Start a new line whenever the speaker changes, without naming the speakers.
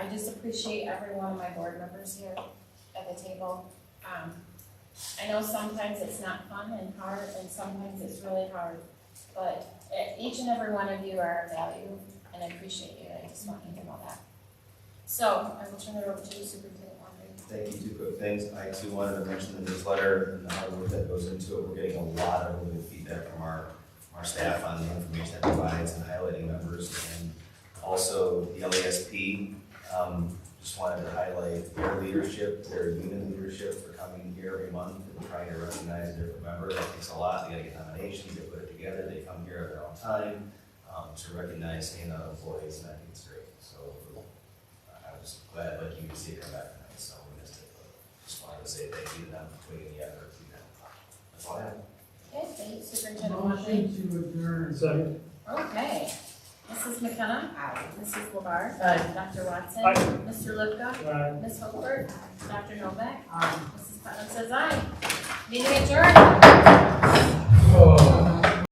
just appreciate every one of my board members here at the table. Um, I know sometimes it's not fun and hard, and sometimes it's really hard, but e- each and every one of you are of value, and I appreciate you, I just want you to know that. So, I will turn it over to you, Superintendent Wondry.
Thank you, two quick things. I too wanted to mention the newsletter and the hard work that goes into it. We're getting a lot of really good feedback from our, from our staff on the information that provides and highlighting numbers. And also the LASP, um, just wanted to highlight their leadership, their unit leadership for coming here every month and trying to recognize a different member. It takes a lot. They gotta get nominations, they put it together, they come here at their own time, um, to recognize standout employees, and I think it's great. So I was glad, like you could see it come back tonight, so we missed it, but just wanted to say thank you to them for putting in the effort to do that. That's all I have.
Okay, thank you, Superintendent Wondry.
Motion to adjourn.
Second.
Okay, Mrs. McKenna? Aye. Mrs. LeBar?
Aye.
Dr. Watson?
Aye.
Mr. Lipka?
Aye.
Ms. Hofer? Dr. Novak?
Aye.
Um, Mrs. Putnam says aye. Meeting adjourned.